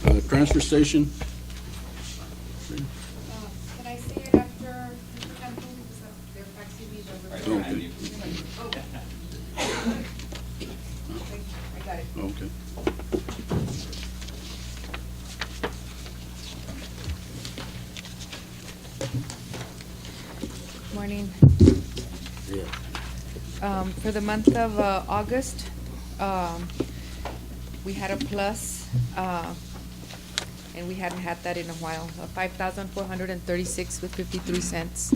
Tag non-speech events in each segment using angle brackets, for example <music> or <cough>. the Uh, transfer station. Can I say it after Mr. Temple, because that- they're faxing me the. Don't be. Oh. Thank you, I got it. Okay. Morning. Um, For the month of uh, August, um, we had a plus, uh, and we hadn't had that in a while, of 5,436 with 53 cents.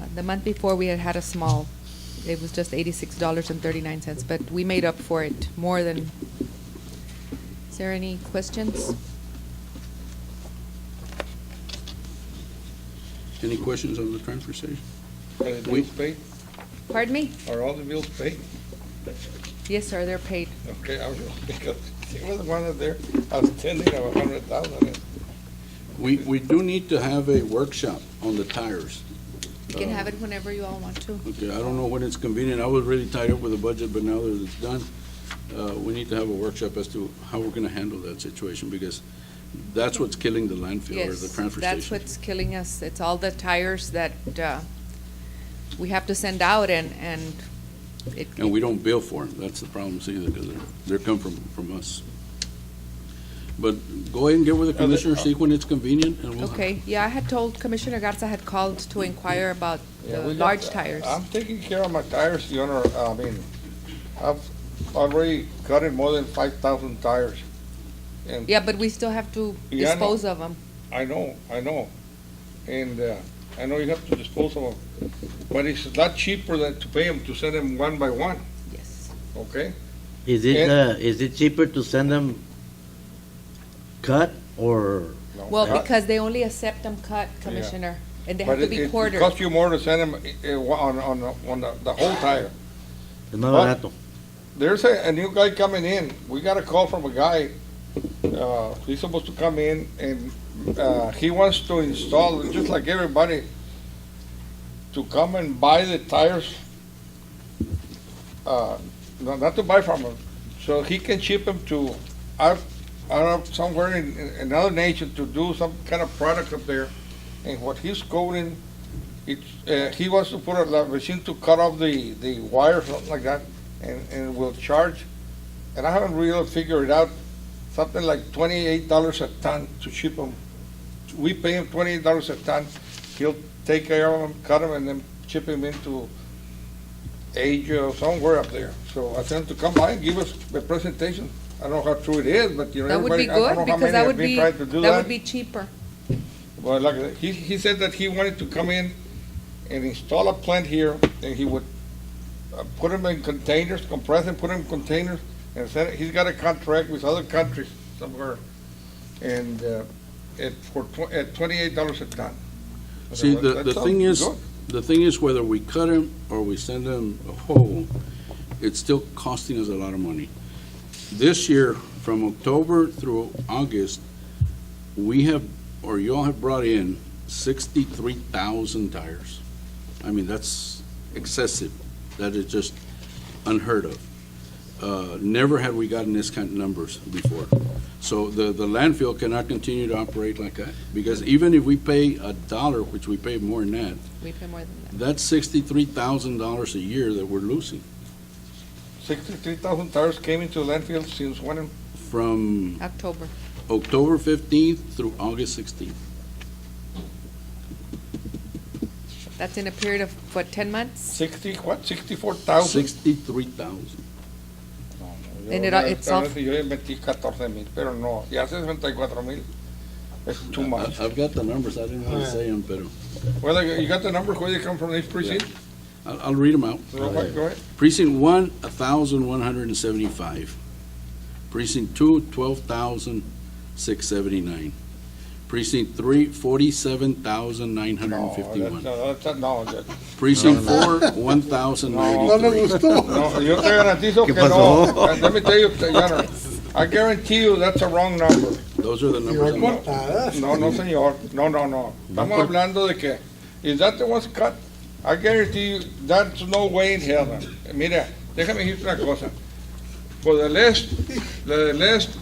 Uh, The month before, we had had a small, it was just $86.39, but we made up for it more than. Is there any questions? Any questions on the transfer station? Are the We- bills paid? Pardon me? Are all the bills paid? Yes, sir, they're paid. Okay, I was, because <laughs> it was one of their outstanding of a hundred thousand. We, we do need to have a workshop on the tires. You can have it whenever you all want to. Okay, I don't know when it's convenient. I was really tied up with the budget, but now that it's done, uh, we need to have a workshop as to how we're gonna handle that situation, because that's what's killing the landfill or the Yes, transfer that's station. what's killing us. It's all the tires that uh, we have to send out and, and it, And we don't bill for them. That's the problem, see, because they're, they're come from, from us. But go ahead and get with the Are they- commissioner, see when it's convenient, and we'll. okay, yeah, I had told Commissioner Garza had called to inquire about Yeah, the we got- large tires. I'm taking care of my tires, Your Honor. I mean, I've already cut in more than five thousand tires. And Yeah, but we still have to Yeah, I know. dispose of them. I know, I know. And uh, I know you have to dispose of them. But it's a lot cheaper than to pay them, to send them one by one, Yes. okay? Is it, And- uh, is it cheaper to send them cut or, No, Well, not- because they only accept them cut, Commissioner, and they have But to it be it quartered. costs you more to send them on, on, on the- the whole tire. es más What? barato? There's a, a new guy coming in. We got a call from a guy. Uh, he's supposed to come in and uh, he wants to install, just like everybody, to come and buy the tires. Uh, no, not to buy from him. So he can ship them to, out, out of somewhere in, in another nation to do some kind of product up there. And what he's coding, it's, uh, he wants to put a la- machine to cut off the, the wire, something like that and, and will charge, and I haven't really figured it out, something like twenty-eight dollars a ton to ship them. We pay him twenty-eight dollars a ton, he'll take care of them, cut them, and then ship them into Asia or somewhere up there. So I sent him to come by and give us a presentation. I don't know how true it is, but you know, That would be everybody, I don't know good, how because many that have would been be, trying to do that would be cheaper. well, like, I said, he, he said that he wanted to come in and install a plant here, and he would uh, put them in containers, compress and put them in containers, and said, he's got a contract with other countries somewhere, and, uh, at, for tw- at twenty-eight dollars a ton. I said, See, "Well, the, that the sounds thing is, good." the thing is whether we cut them or we send them a whole, it's still costing us a lot of money. This year, from October through August, we have, or y'all have brought in sixty-three thousand tires. I mean, that's excessive. That is just unheard of. Uh, never had we gotten this kind of numbers before. So the, the landfill cannot continue to operate like that, because even if we pay a dollar, which we pay more than that, We pay more than that. that's sixty-three thousand dollars a year that we're losing Sixty-three thousand tires came into landfill since when, from October. October fifteenth through August sixteenth. That's in a period of, what, 10 months? sixty, what, sixty-four thousand? Sixty-three thousand. And it- it's off- Yo le metí catorce mil, pero no, ya sesenta mil, it's Uh, too much. I've got the numbers, I didn't want to say them, but Well, like, you got the number, where they come from, each precinct? uh, I'll, I'll read them out. Go ahead, go ahead. Precinct one, a thousand one hundred and seventy-five. Precinct two, twelve thousand six seventy-nine. Precinct three, forty-seven thousand nine hundred and No, fifty-one. Oh, that's- that's- no, that's- Precinct four, one thousand ninety-three. no, yo te garantizo que ¿Qué no. pasó? And Let me tell you, Yana, I guarantee you that's a wrong number. Those are the numbers. I'm- No, no, señor, no, no, no. Estamos hablando de que, is that the one's cut? I guarantee you, that's no way in hell. Mira, déjame decirte una cosa. For the last, the last